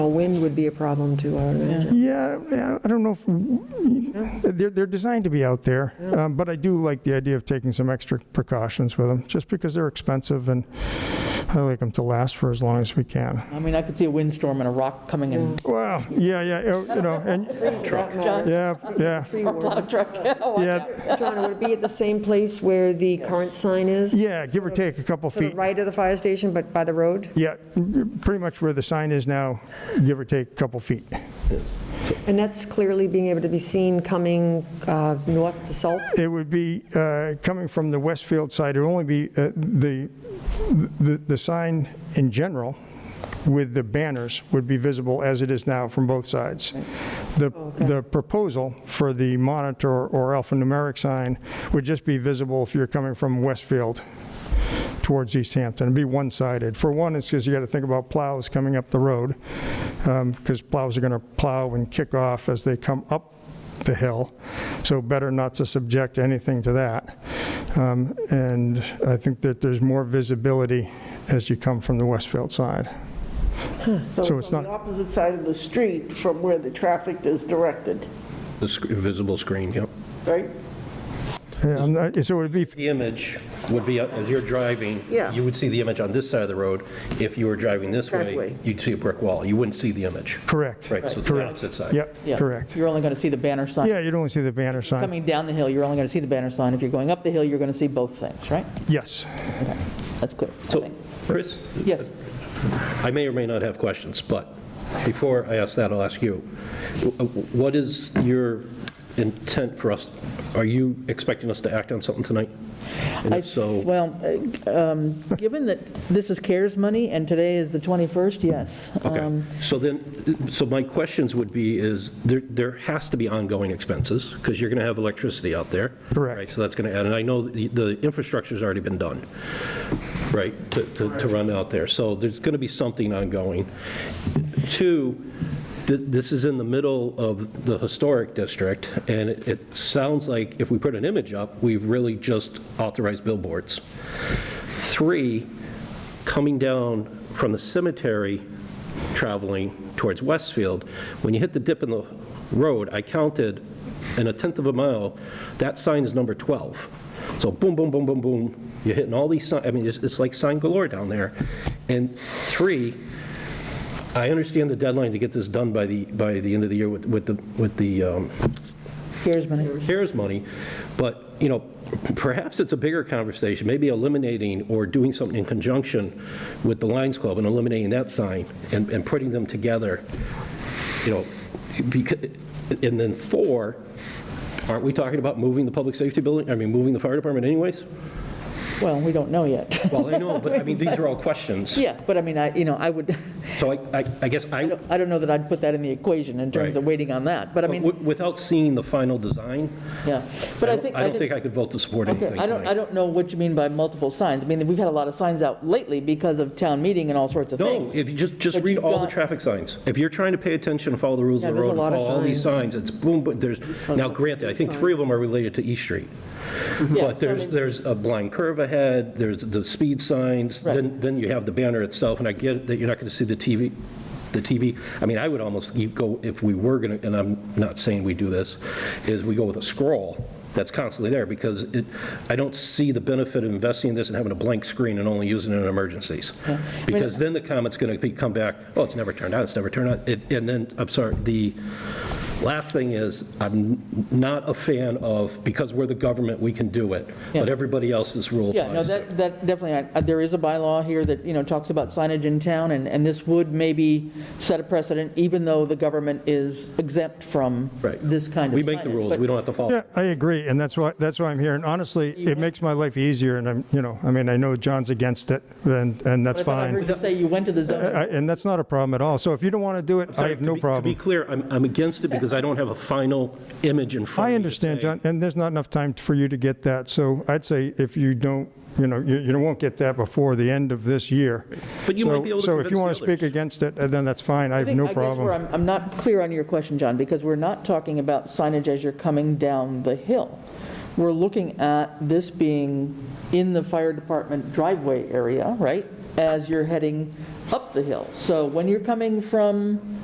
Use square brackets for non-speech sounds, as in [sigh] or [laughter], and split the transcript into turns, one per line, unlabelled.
Wind would be a problem too, I would imagine.
Yeah, I- I don't know, if- they're, they're designed to be out there, um, but I do like the idea of taking some extra precautions with them, just because they're expensive and I like them to last for as long as we can.
I mean, I could see a windstorm and a rock coming in.
Well, yeah, yeah, oh, you know, and,
Truck. John,
yeah, yeah,
[laughs] tree
[laughs]
warden.
yeah,
John, would it be at the same place where the current sign is?
yeah, give or take a couple
To the
feet.
right of the fire station, but by the road?
Yeah, pretty much where the sign is now, give or take a couple feet.
And that's clearly being able to be seen coming uh, north to Salt?
It would be, uh, coming from the Westfield side, it would only be uh, the, the, the sign in general with the banners would be visible as it is now from both sides. The, the proposal for the monitor or alphanumeric sign would just be visible if you're coming from Westfield towards East Hampton. It'd be one-sided. For one, it's because you got to think about plows coming up the road, because plows are going to plow and kick off as they come up the hill, so better not to subject anything to that. Um, And I think that there's more visibility as you come from the Westfield side. So it's
On the
not,
opposite side of the street from where the traffic is directed,
The sc- visible screen, yep.
right?
yeah, I'm not- so it would be,
The image would be, uh, as you're driving,
Yeah.
you would see the image on this side of the road. If you were driving this way,
Driveway.
you'd see a brick wall. You wouldn't see the image.
correct.
Right, so it's the
Correct.
opposite side.
Yep,
Yeah.
correct.
You're only going to see the banner sign.
Yeah, you'd only see the banner sign.
Coming down the hill, you're only going to see the banner sign. If you're going up the hill, you're going to see both things, right?
Yes.
That's clear. I
So,
think.
Chris,
Yes,
I may or may not have questions, but before I ask that, I'll ask you. Wh- What is your intent for us? Are you expecting us to act on something tonight? And
I,
if so,
well, uh, um, given that this is CARES money and today is the 21st, yes.
okay.
Um,
So then, so my questions would be is, there, there has to be ongoing expenses because you're going to have electricity out there.
Correct.
Right, so that's going to add, and I know the, the infrastructure's already been done, right, to, to to run out there. So there's going to be something ongoing. Two, th- this is in the middle of the historic district, and it- it sounds like if we put an image up, we've really just authorized billboards. Three, coming down from the cemetery, traveling towards Westfield, when you hit the dip in the road, I counted in a tenth of a mile, that sign is number 12. So boom, boom, boom, boom, boom, you're hitting all these signs, I mean, it's, it's like sign galore down there. And three, I understand the deadline to get this done by the, by the end of the year with, with the, with the um,
CARES money.
CARES money, but, you know, perhaps it's a bigger conversation, maybe eliminating or doing something in conjunction with the Lions Club and eliminating that sign and, and putting them together, you know, because, and then four, aren't we talking about moving the public safety building, I mean, moving the fire department anyways?
Well, we don't know yet. [laughs]
Well, I know, but I mean, these are all questions.
Yeah, but I mean, I, you know, I would, [laughs]
So I, I- I guess
I
I,
don't- I don't know that I'd put that in the equation in terms of
Right.
waiting on that, but I mean,
wi- without seeing the final design,
yeah. But
I
I think.
don't I don't think I could vote to support
Okay,
anything
I don't, I
tonight.
don't know what you mean by multiple signs. I mean, we've had a lot of signs out lately because of town meeting and all sorts of
No,
things.
if you just, just
But
read
you've
all the
got-
traffic signs. If you're trying to pay attention and follow the rules
Yeah,
of the
there's a
road,
lot
and
of
follow all these
signs.
signs, it's boom, but there's, now granted, I think three of them are related to East Street.
Yeah,
But
so I
there's,
mean-
there's a blind curve ahead, there's the speed signs, then, then you have the banner itself, and I get that you're not going to see the TV, the TV. I mean, I would almost, you go, if we were going to, and I'm not saying we do this, is we go with a scroll that's constantly there, because it, I don't see the benefit of investing in this and having a blank screen and only using it in emergencies. Because then the comment's going to be, come back, oh, it's never turned on, it's never turned on, It- and then, I'm sorry, the, Last thing is, I'm not a fan of, because we're the government, we can do it, but
Yeah.
everybody else's rule
Yeah, no,
applies.
that, that definitely, I- there is a bylaw here that, you know, talks about signage in town, and, and this would maybe set a precedent, even though the government is exempt from
Right.
this kind of
We make the
signage.
rules,
But-
we don't have to follow.
Yeah, I agree, and that's why, that's why I'm here. And honestly, it makes my life easier, and I'm, you know, I mean, I know John's against it, and, and that's
but I thought I
fine.
heard you say you went to the zoning.
I- And that's not a problem at all. So if you don't want to do it, I
Sorry,
have
to
no
be-
problem.
To be clear, I'm, I'm against it because I don't have a final image in front of me.
I
to
understand,
say-
John, and there's not enough time for you to get that, so I'd say if you don't, you know, you you won't get that before the end of this year.
But you might
So-
be able to
So if
convince
you
the
want to speak
others.
against it, uh, then that's fine, I have
think-
no
I guess where
problem.
I'm, I'm not clear on your question, John, because we're not talking about signage as you're coming down the hill. We're looking at this being in the fire department driveway area, right? As you're heading up the hill. So when you're coming from